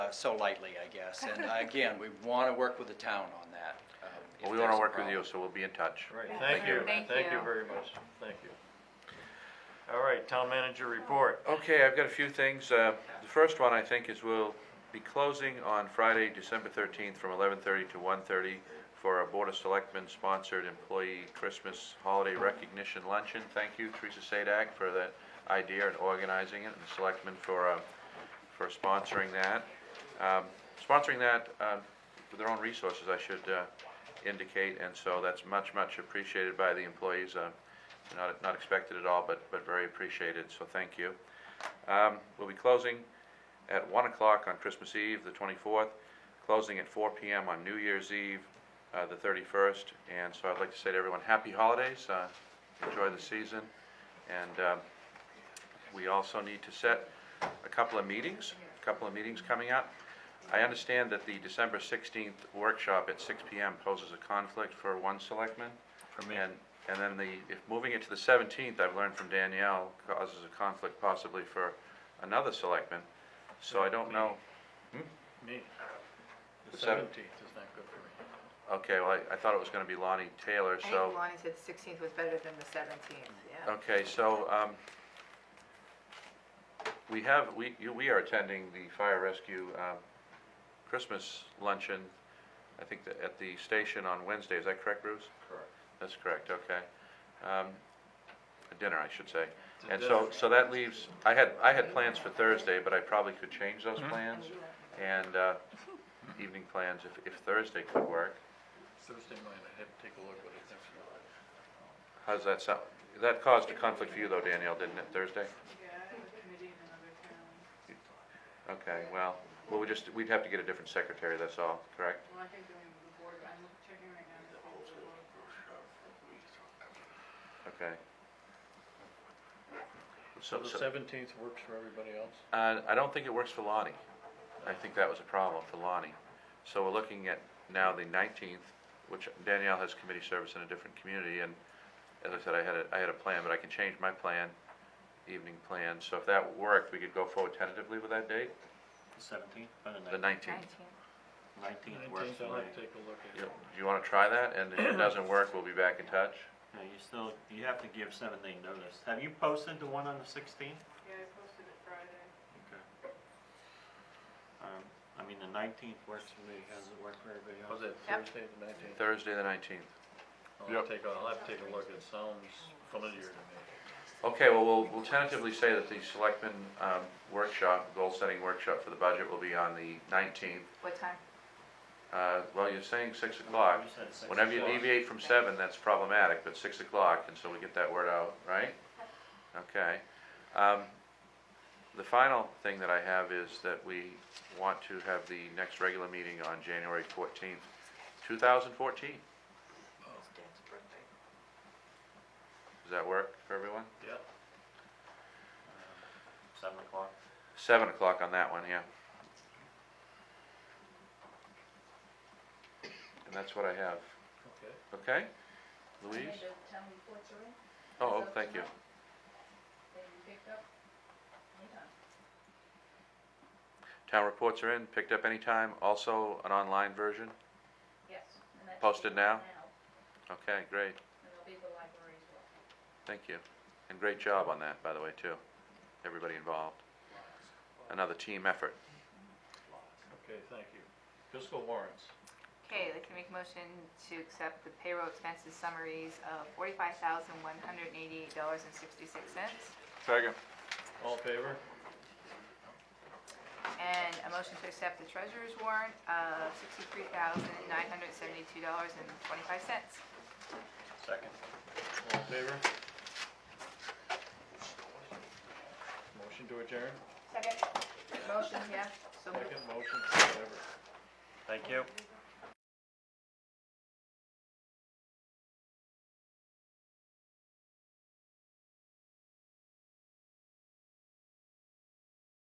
uh, so lightly, I guess. And uh, again, we want to work with the town on that. um, if Well, we want there's to a work with you, problem. so we'll be in touch. Right, Yeah. thank you, Thank thank you you. very much, thank you. All right, town manager report. Okay, I've got a few things. Uh, The first one, I think, is we'll be closing on Friday, December 13th, from 11:30 to 1:30 for our Board of Selectmen-sponsored employee Christmas holiday recognition luncheon. Thank you, Teresa Sadak, for that idea and organizing it, and the selectmen for, uh, for sponsoring that. Um, Sponsoring that uh, with their own resources, I should uh, indicate, and so that's much, much appreciated by the employees. Uh, Not, not expected at all, but, but very appreciated, so thank you. Um, We'll be closing at 1 o'clock on Christmas Eve, the 24th, closing at 4 PM on New Year's Eve, uh, the 31st. And so I'd like to say to everyone, happy holidays, uh, enjoy the season. And um, we also need to set a couple of meetings, a couple of meetings coming up. I understand that the December 16th workshop at 6 PM poses a conflict for one selectman. For me. And, and then the, if moving it to the 17th, I've learned from Danielle, causes a conflict possibly for another selectman. So I don't know, Me, the The seven- seventeenth is not good for okay, well, I, I thought it was gonna be Lonnie Taylor, I so. think Lonnie said the 16th was better than the 17th, yeah. Okay, so, um, we have, we, you, we are attending the fire rescue, um, Christmas luncheon, I think that at the station on Wednesday, is that correct, Bruce? Correct. That's correct, okay. Um, a dinner, I should say. It's a And so, dinner. so that leaves, I had, I had plans for Thursday, but I probably could change those plans, and, uh, evening plans if, if Thursday could work. me. Thursday night, I have to take a look at it next week. How's that sound? That caused a conflict for you though, Danielle, didn't it, Thursday? Okay, well, well, we just, we'd have to get a different secretary, that's all, correct? Well, I think the the board, I'm checking right now, the whole board. Okay. So So, the so, seventeenth works for everybody else? uh, I don't think it works for Lonnie. I think that was a problem for Lonnie. So we're looking at now the nineteenth, which Danielle has committee service in a different community, and as I said, I had a, I had a plan, but I can change my plan, evening plan, so if that worked, we could go forward tentatively with that date, Seventeenth, or the nineteenth. 19th. nineteenth Oh, works Nineteenth, for I'll me. have to take a look Do at it. you wanna try that, and if it doesn't work, we'll be back in touch? No, you still, you have to give seven day notice. Have you posted the one on the sixteenth? Yeah, I posted it Friday. Okay. Um, I mean, the nineteenth works for me, How does it work for everybody else? Was it Yep. Thursday the nineteenth? Thursday, the nineteenth. I'll take, a- I'll have to take a look, it sounds familiar to me. Okay, well, we'll, we'll tentatively say that the selectmen, um, workshop, goal-setting workshop for the budget will be on the nineteenth. What time? Uh, well, you're saying six o'clock. You said six Whenever you o'clock. deviate from seven, that's problematic, but six o'clock, and so we get that word out, right? Okay. Um, the final thing that I have is that we want to have the next regular meeting on January fourteenth, two thousand fourteen. Does that work for everyone? Yeah. Seven o'clock. Seven o'clock on that one, yeah. And that's what I have, Okay. okay? Louise? town reports are in, Oh, thank you. they picked up, yeah. Town reports are in, picked up anytime, also an online version, yes. and that's Posted now? now, okay, great, And they'll be at the library as well. thank you. And great job on that, by the way, too, everybody involved. Another team effort. Okay, thank you. Fiscal warrants. Okay, I'd like to make a motion to accept the payroll expenses summaries of $45,188.66. Second. All in favor? And a motion to accept the treasurer's warrant of $63,972.25. Second. All in favor? Motion to adjourn? Second. Motion, yeah, so moved. Second motion, whatever. Thank you.